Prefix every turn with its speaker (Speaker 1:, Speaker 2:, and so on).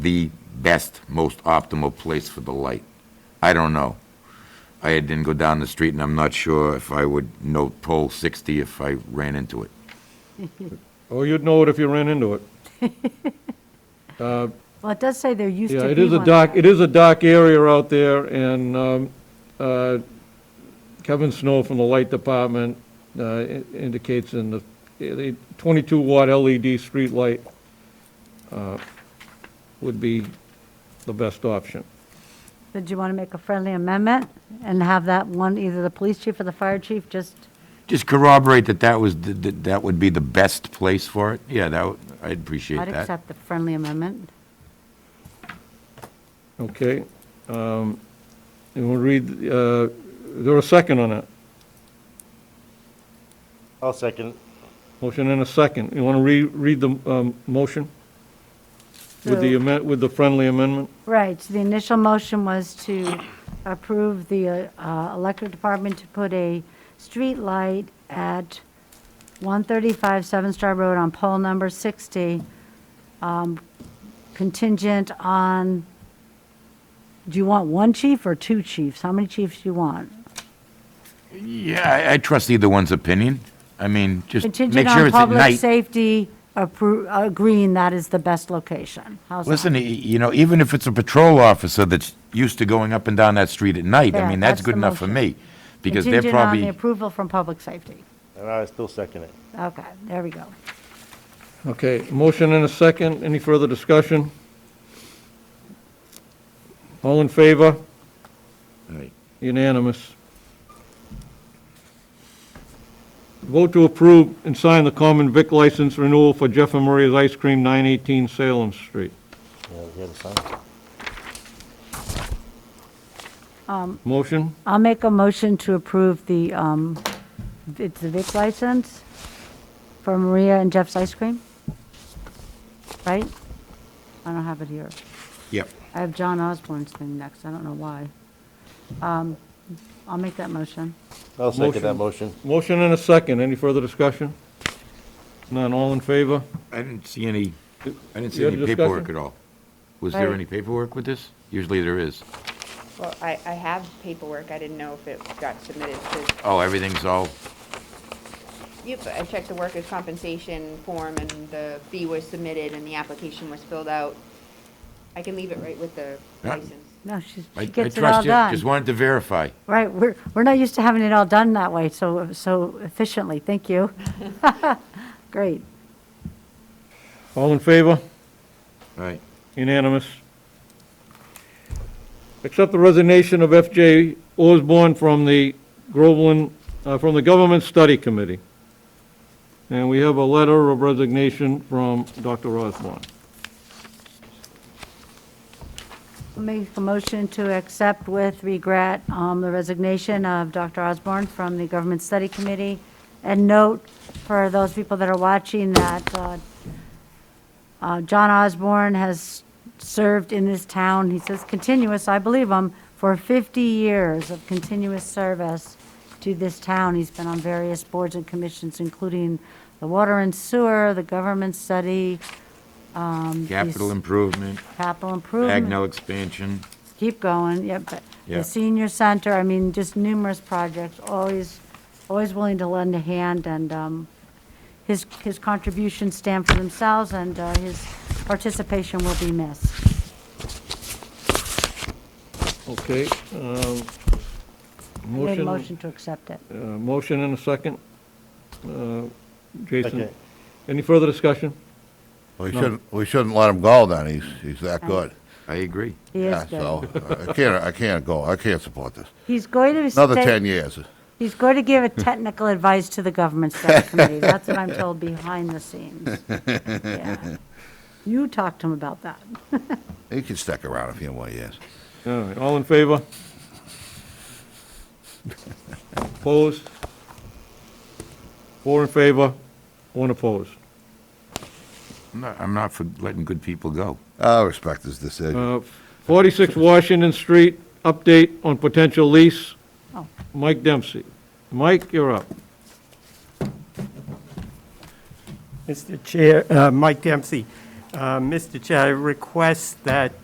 Speaker 1: the best, most optimal place for the light. I don't know. I didn't go down the street, and I'm not sure if I would know pole 60 if I ran into it.
Speaker 2: Oh, you'd know it if you ran into it.
Speaker 3: Well, it does say there used
Speaker 2: Yeah,
Speaker 3: to
Speaker 2: it
Speaker 3: be
Speaker 2: is a
Speaker 3: one.
Speaker 2: dark, it is a dark area out there, and um, uh, Kevin Snow from the Light Department uh, i- indicates in the- the 22-watt LED E street light uh, would be the best option.
Speaker 3: Did you want to make a friendly amendment and have that one, either the police chief or the fire chief, just,
Speaker 1: Just corroborate that that was, th- th- that would be the best place for it. Yeah, that, would- I'd appreciate
Speaker 3: I'd
Speaker 1: that.
Speaker 3: accept the friendly amendment.
Speaker 2: Okay? Um, And we'll read, uh, is there a second on that?
Speaker 4: I'll second.
Speaker 2: Motion and a second. You want to read the um, motion? With the
Speaker 3: So-
Speaker 2: amen- With the friendly amendment?
Speaker 3: Right, so the initial motion was to approve the uh, uh, electric department to put a street light at 135 Seven Star Road on pole number 60, um, contingent on, do you want one chief or two chiefs? How many chiefs do you want?
Speaker 1: Yeah, I- I trust either one's opinion. I mean, just make
Speaker 3: Contingent
Speaker 1: sure
Speaker 3: on
Speaker 1: it's at
Speaker 3: public
Speaker 1: night.
Speaker 3: safety appro- agreeing that is the best location. How's that?
Speaker 1: Listen, y- you know, even if it's a patrol officer that's used to going up and down that street at night, I
Speaker 3: Yeah,
Speaker 1: mean, that's
Speaker 3: that's
Speaker 1: good
Speaker 3: the
Speaker 1: enough for
Speaker 3: motion.
Speaker 1: me. Because they're
Speaker 3: Contingent on
Speaker 1: probably.
Speaker 3: the approval from public safety.
Speaker 4: And I still second it.
Speaker 3: Okay, there we go.
Speaker 2: Okay, motion and a second. Any further discussion? All in favor?
Speaker 1: Right.
Speaker 2: Unanimous. Vote to approve and sign the common vic license renewal for Jeff and Maria's Ice Cream, 918 Salem Street.
Speaker 4: Yeah, we had a sign.
Speaker 2: Motion?
Speaker 3: I'll make a motion to approve the, um, it's the Vic license for Maria and Jeff's Ice Cream, right? I don't have it here.
Speaker 1: Yep.
Speaker 3: I have John Osborne's thing next, I don't know why. Um, I'll make that motion.
Speaker 4: I'll second that motion.
Speaker 2: Motion and a second. Any further discussion? None. All in favor?
Speaker 1: I didn't see any, I didn't see
Speaker 2: You had
Speaker 1: any
Speaker 2: a
Speaker 1: paperwork at
Speaker 2: discussion?
Speaker 1: all. Was there
Speaker 3: Right.
Speaker 1: any paperwork with this? Usually there is.
Speaker 5: Well, I, I have paperwork, I didn't know if it got submitted to,
Speaker 1: Oh, everything's all,
Speaker 5: yep, I checked the workers' compensation form, and the fee was submitted, and the application was filled out. I can leave it right with the
Speaker 1: Yeah.
Speaker 5: license.
Speaker 3: No, she's-
Speaker 1: I I
Speaker 3: she
Speaker 1: trust
Speaker 3: gets
Speaker 1: you.
Speaker 3: it all done.
Speaker 1: Just wanted to verify.
Speaker 3: Right, we're, we're not used to having it all done that way, so, so efficiently, thank you. Great.
Speaker 2: All in favor?
Speaker 1: Right.
Speaker 2: Unanimous. Accept the resignation of F.J. Osborne from the Groveland, uh, from the Government Study Committee. And we have a letter of resignation from Dr. Osborne.
Speaker 3: I'll Make a motion to accept with regret um, the resignation of Dr. Osborne from the Government Study Committee. And note for those people that are watching that uh, uh, John Osborne has served in this town, he says continuous, I believe him, for 50 years of continuous service to this town. He's been on various boards and commissions, including the Water and Sewer, the Government Study,
Speaker 1: Capital improvement,
Speaker 3: Capital Improvement.
Speaker 1: Bagnell expansion.
Speaker 3: keep going, yep, but
Speaker 1: Yeah.
Speaker 3: the senior center, I mean, just numerous projects, always, always willing to lend a hand, and um, his, his contributions stand for themselves, and uh, his participation will be missed.
Speaker 2: Okay. um,
Speaker 3: I made a
Speaker 2: Motion,
Speaker 3: motion to accept it.
Speaker 2: uh, motion and a second. Uh, Jason,
Speaker 4: Second.
Speaker 2: any further discussion?
Speaker 6: We shouldn't, we shouldn't let him go then, he's, he's that good.
Speaker 1: I agree.
Speaker 3: Oh, He is
Speaker 6: Yeah,
Speaker 3: good.
Speaker 6: so, uh, I can't, I can't go, I can't support this.
Speaker 3: He's going to
Speaker 6: Another
Speaker 3: stay-
Speaker 6: 10 years.
Speaker 3: He's going to give a technical advice to the government study committee. That's what I'm told behind the scenes. Yeah. You talked to him about that.
Speaker 6: He can stick around a few more years.
Speaker 2: All right, all in favor? Opposed? Four in favor, one opposed.
Speaker 1: I'm not, I'm not for letting good people go.
Speaker 6: I respect his decision.
Speaker 2: Uh, 46 Washington Street, update on potential lease.
Speaker 3: Oh.
Speaker 2: Mike Dempsey. Mike, you're up.
Speaker 7: Mr. Chair, uh, Mike Dempsey. Uh, Mr. Chair, I request that